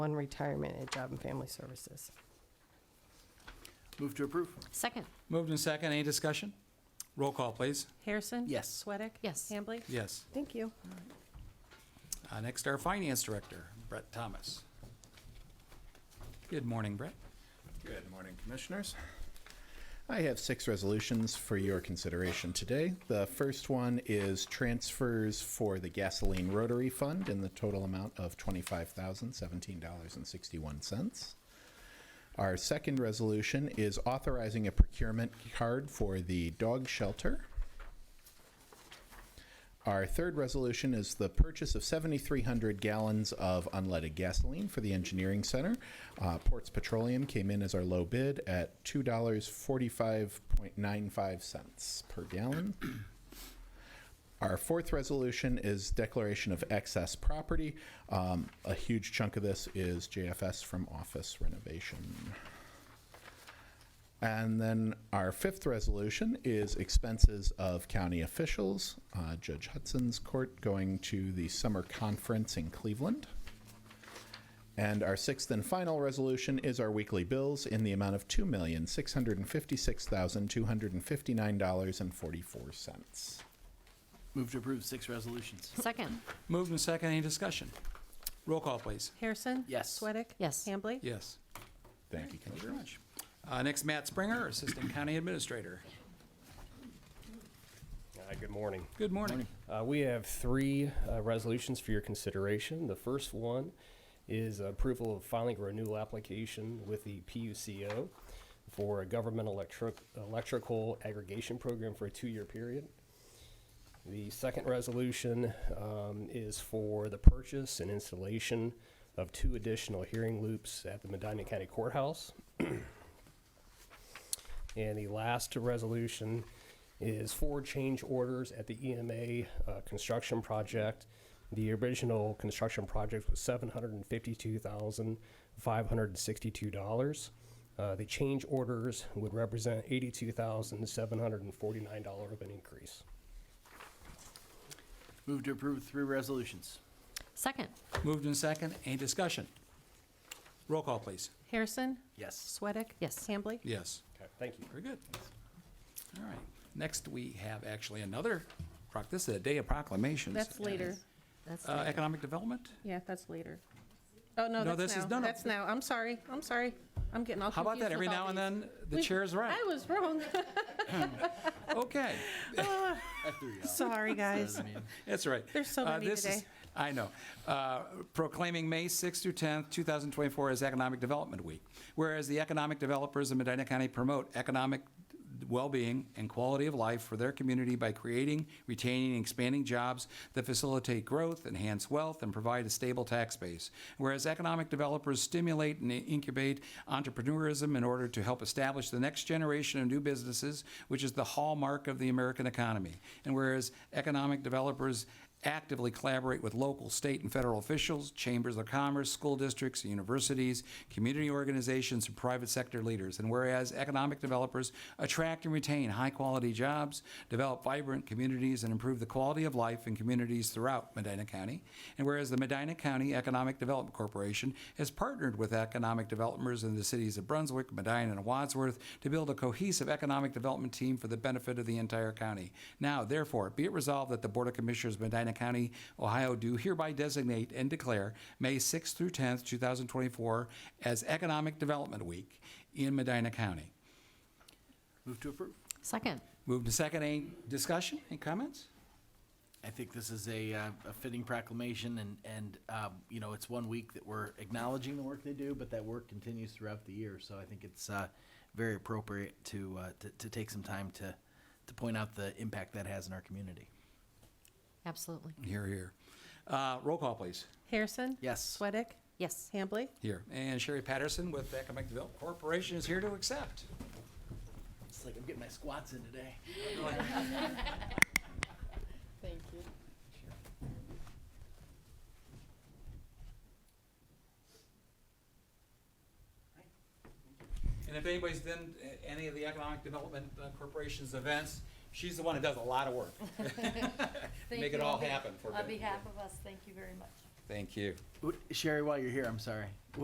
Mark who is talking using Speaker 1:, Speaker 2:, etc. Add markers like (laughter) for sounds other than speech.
Speaker 1: one retirement at Job and Family Services.
Speaker 2: Move to approve.
Speaker 3: Second.
Speaker 4: Moved in second. Any discussion? Roll call, please.
Speaker 5: Harrison?
Speaker 2: Yes.
Speaker 5: Sweattick?
Speaker 3: Yes.
Speaker 5: Hambley?
Speaker 4: Yes.
Speaker 1: Thank you.
Speaker 4: Uh, Next, our Finance Director, Brett Thomas. Good morning, Brett.
Speaker 6: Good morning, Commissioners. I have six resolutions for your consideration today. The first one is transfers for the gasoline rotary fund in the total amount of $25,017.61. Our second resolution is authorizing a procurement card for the dog shelter. Our third resolution is the purchase of 7,300 gallons of unleaded gasoline for the engineering center. Uh, Ports Petroleum came in as our low bid at $2.45.95 per gallon. (clears throat) Our fourth resolution is declaration of excess property. Um, A huge chunk of this is JFS from office renovation. And then our fifth resolution is expenses of county officials. Uh, Judge Hudson's court going to the summer conference in Cleveland. And our sixth and final resolution is our weekly bills in the amount of $2,656,259.44.
Speaker 2: Move to approve six resolutions.
Speaker 3: Second.
Speaker 4: Moved in second. Any discussion? Roll call, please.
Speaker 5: Harrison?
Speaker 2: Yes.
Speaker 5: Sweattick?
Speaker 3: Yes.
Speaker 5: Hambley?
Speaker 4: Yes.
Speaker 6: Thank you,
Speaker 4: Thank you
Speaker 6: Commissioner.
Speaker 4: very much. Uh, Next, Matt Springer, Assistant County Administrator.
Speaker 7: Hi, Uh, good morning.
Speaker 4: Good morning.
Speaker 7: Uh, We have three uh, resolutions for your consideration. The first one is approval of filing a renewal application with the PUCO for a government electric, electrical aggregation program for a two-year period. The second resolution um, is for the purchase and installation of two additional hearing loops at the Medina County Courthouse. And the last resolution is for change orders at the EMA uh, construction project. The original construction project was $752,562. Uh, The change orders would represent $82,749 of an increase.
Speaker 2: Move to approve three resolutions.
Speaker 3: Second.
Speaker 4: Moved in second. Any discussion? Roll call, please.
Speaker 5: Harrison?
Speaker 2: Yes.
Speaker 5: Sweattick?
Speaker 3: Yes.
Speaker 5: Hambley?
Speaker 4: Yes.
Speaker 7: Okay, thank you.
Speaker 4: Very good. All right. Next, we have actually another, proc- this is a day of proclamations.
Speaker 5: That's later.
Speaker 3: That's
Speaker 4: Uh,
Speaker 3: later.
Speaker 4: Economic Development?
Speaker 5: Yeah, that's later. Oh, no,
Speaker 4: No,
Speaker 5: that's
Speaker 4: this is- no,
Speaker 5: now.
Speaker 4: no.
Speaker 5: That's now. I'm sorry. I'm sorry. I'm getting all
Speaker 4: How about
Speaker 5: confused
Speaker 4: that?
Speaker 5: with
Speaker 4: Every
Speaker 5: all
Speaker 4: now and
Speaker 5: these.
Speaker 4: then, the
Speaker 5: We-
Speaker 4: chair's right.
Speaker 5: I was
Speaker 3: (laughs)
Speaker 5: wrong.
Speaker 4: Okay,
Speaker 2: I threw you out.
Speaker 5: Sorry, guys.
Speaker 4: that's right.
Speaker 5: There's so
Speaker 4: Uh,
Speaker 5: many
Speaker 4: this is-
Speaker 5: today.
Speaker 4: I know. Uh, Proclaiming May 6th through 10th, 2024 as Economic Development Week. Whereas the economic developers of Medina County promote economic well-being and quality of life for their community by creating, retaining, and expanding jobs that facilitate growth, enhance wealth, and provide a stable tax base. Whereas economic developers stimulate and incubate entrepreneurism in order to help establish the next generation of new businesses, which is the hallmark of the American economy. And whereas economic developers actively collaborate with local, state, and federal officials, chambers of commerce, school districts, universities, community organizations, and private sector leaders. And whereas economic developers attract and retain high-quality jobs, develop vibrant communities, and improve the quality of life in communities throughout Medina County. And whereas the Medina County Economic Development Corporation has partnered with economic developers in the cities of Brunswick, Medina, and Wadsworth to build a cohesive economic development team for the benefit of the entire county. Now, therefore, be it resolved that the Board of Commissioners of Medina County, Ohio do hereby designate and declare May 6th through 10th, 2024 as Economic Development Week in Medina County.
Speaker 2: Move to approve.
Speaker 3: Second.
Speaker 4: Moved to second. Any discussion? Any comments?
Speaker 2: I think this is a, uh, a fitting proclamation and, and, um, you know, it's one week that we're acknowledging the work they do, but that work continues throughout the year. So I think it's, uh, very appropriate to, uh, to, to take some time to, to point out the impact that has in our community.
Speaker 3: Absolutely.
Speaker 4: Here, here. Uh, Roll call, please.
Speaker 5: (laughs) Harrison?
Speaker 2: Yes.
Speaker 5: Sweattick?
Speaker 3: Yes.
Speaker 5: Hambley?
Speaker 4: Here. And Sherry Patterson with Economic Development Corporation is here to accept.
Speaker 2: It's like I'm getting my squats in today. (laughs)
Speaker 1: Thank you.
Speaker 4: And if anybody's been at any of the Economic Development uh, Corporation's events, she's the one
Speaker 8: (laughs)
Speaker 4: (laughs) that does a lot of work. Make it all happen for
Speaker 8: On
Speaker 4: them.
Speaker 8: behalf of us, thank you very much.
Speaker 4: Thank you.
Speaker 2: Sherry, while you're here, I'm sorry.